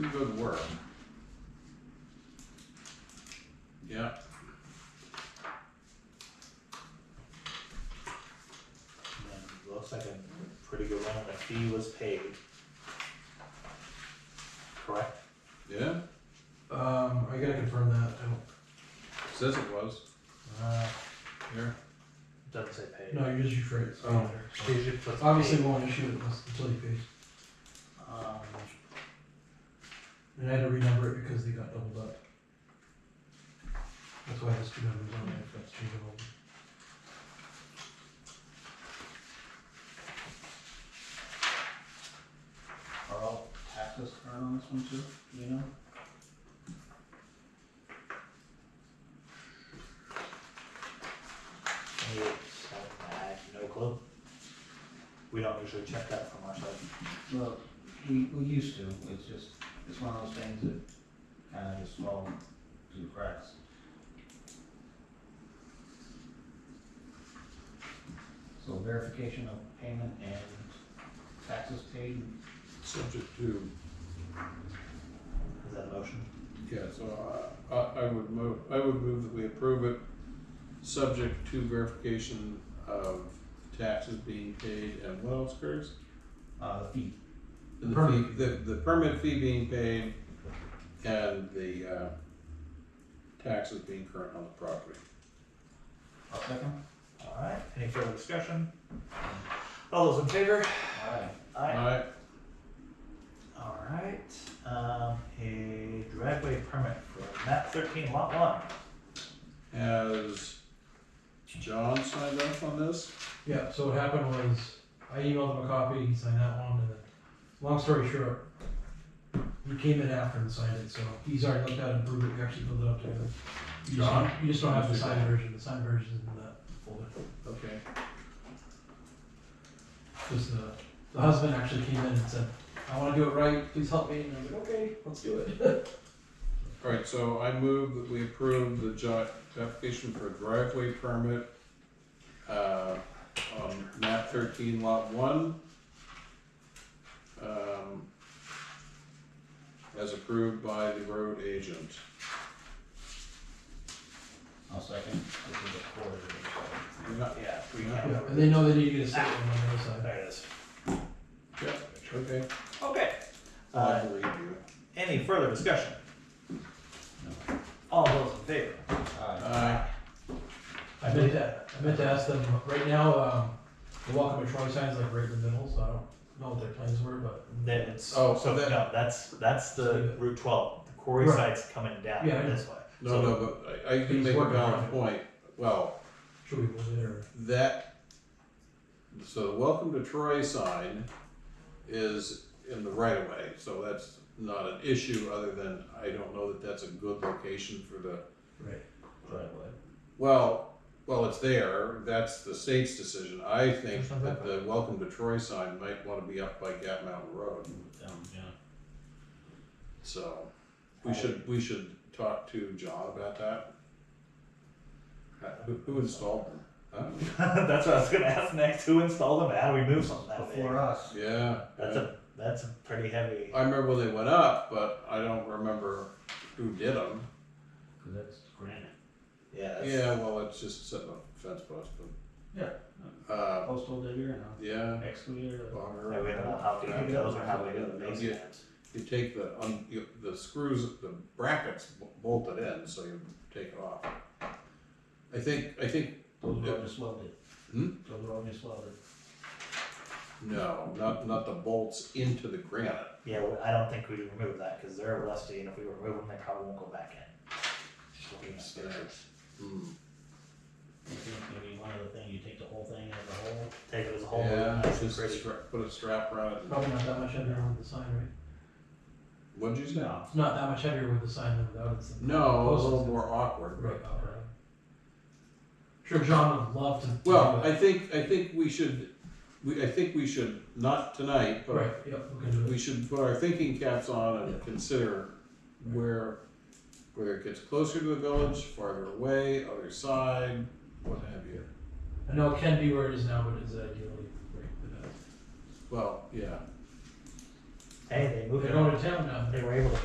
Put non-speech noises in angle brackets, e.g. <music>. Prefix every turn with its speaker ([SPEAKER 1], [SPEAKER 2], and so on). [SPEAKER 1] pretty good work. Yeah.
[SPEAKER 2] And looks like a pretty good one, and the fee was paid. Correct?
[SPEAKER 1] Yeah,
[SPEAKER 3] Um, I gotta confirm that, I don't,
[SPEAKER 1] says it was,
[SPEAKER 2] Uh,
[SPEAKER 1] here,
[SPEAKER 2] doesn't say paid.
[SPEAKER 3] no, you just rephrase. it.
[SPEAKER 2] Oh. It usually puts
[SPEAKER 3] Obviously
[SPEAKER 2] paid.
[SPEAKER 3] won't issue it unless- until you pay,
[SPEAKER 2] Um,
[SPEAKER 3] and I had to renumber it because they got doubled up. That's why there's two numbers on there, if that's changeable.
[SPEAKER 4] Are all taxes current on this one too, you know?
[SPEAKER 2] it's, I have no clue. We don't usually check that from our side.
[SPEAKER 4] Well, we, we used to, it's just, it's one of those things that kind of just fall through the cracks. So verification of payment and taxes paid,
[SPEAKER 1] subject to,
[SPEAKER 2] Is that a motion?
[SPEAKER 1] yeah, so I, I, I would move, I would move that we approve it, subject to verification of taxes being paid and what else, Curtis?
[SPEAKER 4] uh, the fee,
[SPEAKER 1] And the fee,
[SPEAKER 3] Permit.
[SPEAKER 1] the, the permit fee being paid and the, uh, taxes being current on the property.
[SPEAKER 4] a second?
[SPEAKER 2] Alright, any further discussion? All those in favor?
[SPEAKER 4] Alright,
[SPEAKER 1] Aye,
[SPEAKER 2] Aye. Alright, um, a driveway permit for map thirteen lot one.
[SPEAKER 1] has John signed off on this?
[SPEAKER 3] Yeah, so what happened was, I emailed him a copy, he signed that one, and then, long story short, he came in after and signed it, so he's already looked at it and approved it, we actually filled it up together. You just
[SPEAKER 1] John?
[SPEAKER 3] don't- You just don't have the signed version, the signed version is in that folder.
[SPEAKER 1] Okay.
[SPEAKER 3] Because the, uh, the husband actually came in and said, I wanna do it right, please help me, and I was like, okay, let's do it. <laughs>
[SPEAKER 1] Alright, so I move that we approve the jo- application for a driveway permit, uh, on map thirteen lot one. Um, as approved by the road agent.
[SPEAKER 4] I'll second, this is a quarter, so,
[SPEAKER 1] You're not-
[SPEAKER 2] Yeah, we
[SPEAKER 1] Yeah.
[SPEAKER 2] can't.
[SPEAKER 3] Yeah, and they know they need to get a statement on the other side.
[SPEAKER 2] There it is.
[SPEAKER 1] yeah, okay,
[SPEAKER 2] Okay.
[SPEAKER 1] I
[SPEAKER 2] Uh,
[SPEAKER 1] believe you.
[SPEAKER 2] any further discussion? All those in favor?
[SPEAKER 4] alright,
[SPEAKER 1] Aye.
[SPEAKER 3] I meant to, I meant to ask them, right now, um, the welcome to Troy sign's like right in the middle, so I don't know what their plans were, but.
[SPEAKER 2] That's,
[SPEAKER 1] Oh,
[SPEAKER 2] oh, so
[SPEAKER 1] that-
[SPEAKER 2] no, that's, that's the Route twelve, the quarry
[SPEAKER 3] Right.
[SPEAKER 2] site's coming down
[SPEAKER 3] Yeah, I
[SPEAKER 2] this way.
[SPEAKER 1] No,
[SPEAKER 2] So-
[SPEAKER 1] no, but I, I can
[SPEAKER 3] He's
[SPEAKER 1] make a
[SPEAKER 3] working on
[SPEAKER 1] valid
[SPEAKER 3] it.
[SPEAKER 1] point, well,
[SPEAKER 3] Should we move it or?
[SPEAKER 1] that, so the welcome to Troy sign is in the right of way, so that's not an issue, other than I don't know that that's a good location for the,
[SPEAKER 3] Right.
[SPEAKER 4] driveway.
[SPEAKER 1] well, well, it's there, that's the state's decision, I think
[SPEAKER 2] There's no
[SPEAKER 1] that the welcome to Troy sign might wanna be up by Gap Mountain Road,
[SPEAKER 4] Um, yeah.
[SPEAKER 1] so we should, we should talk to John about that. Uh, Who, who installed them? Huh?
[SPEAKER 2] <laughs> That's what I was gonna ask next, who installed them, how do we move something that big?
[SPEAKER 4] Before us,
[SPEAKER 1] Yeah.
[SPEAKER 2] That's a, that's a pretty heavy,
[SPEAKER 1] I remember when they went up, but I don't remember who did them.
[SPEAKER 4] cause that's granite,
[SPEAKER 2] yeah, that's,
[SPEAKER 1] Yeah, well, it's just setting up a fence post, but. Yeah. Uh,
[SPEAKER 4] postal digger and
[SPEAKER 1] yeah,
[SPEAKER 4] a excavator.
[SPEAKER 2] I don't know
[SPEAKER 1] bogger.
[SPEAKER 2] how big those are, how big are the
[SPEAKER 1] Yeah.
[SPEAKER 2] basements?
[SPEAKER 1] You take the, un- you, the screws, the brackets b- bolted in, so you take it off. I think, I think,
[SPEAKER 4] Those are all just welded.
[SPEAKER 1] Hmm?
[SPEAKER 4] Those are all just welded.
[SPEAKER 1] no, not, not the bolts into the granite.
[SPEAKER 2] Yeah, well, I don't think we'd remove that, cause they're rusty, and if we remove them, they probably won't go back in. Just looking at pictures. Mm.
[SPEAKER 1] Hmm.
[SPEAKER 4] I think maybe one other thing, you take the whole thing out of the hole.
[SPEAKER 2] Take it as a whole,
[SPEAKER 1] Yeah,
[SPEAKER 2] nice and
[SPEAKER 1] just
[SPEAKER 2] pretty. Oh.
[SPEAKER 1] stra- put a strap around it.
[SPEAKER 3] Probably not that much heavier with the sign, right?
[SPEAKER 1] What'd you say?
[SPEAKER 4] No.
[SPEAKER 3] It's not that much heavier with the sign than without it. so-
[SPEAKER 1] No, a
[SPEAKER 3] Post-
[SPEAKER 1] little more awkward.
[SPEAKER 3] Right, all right. Sure, John would love to. do
[SPEAKER 1] Well,
[SPEAKER 3] it.
[SPEAKER 1] I think, I think we should, we, I think we should, not tonight,
[SPEAKER 3] Right,
[SPEAKER 1] but
[SPEAKER 3] yep, we can do
[SPEAKER 1] we
[SPEAKER 3] it.
[SPEAKER 1] should put our thinking caps on
[SPEAKER 3] Yeah.
[SPEAKER 1] and consider where, whether it gets closer to the village, farther away, other side, what have you.
[SPEAKER 3] I know it can be where it is now, but it's ideally right for that.
[SPEAKER 1] Well, yeah,
[SPEAKER 2] Hey, they moved
[SPEAKER 3] They're
[SPEAKER 2] it
[SPEAKER 3] going
[SPEAKER 2] on.
[SPEAKER 3] to town now.
[SPEAKER 2] They were able to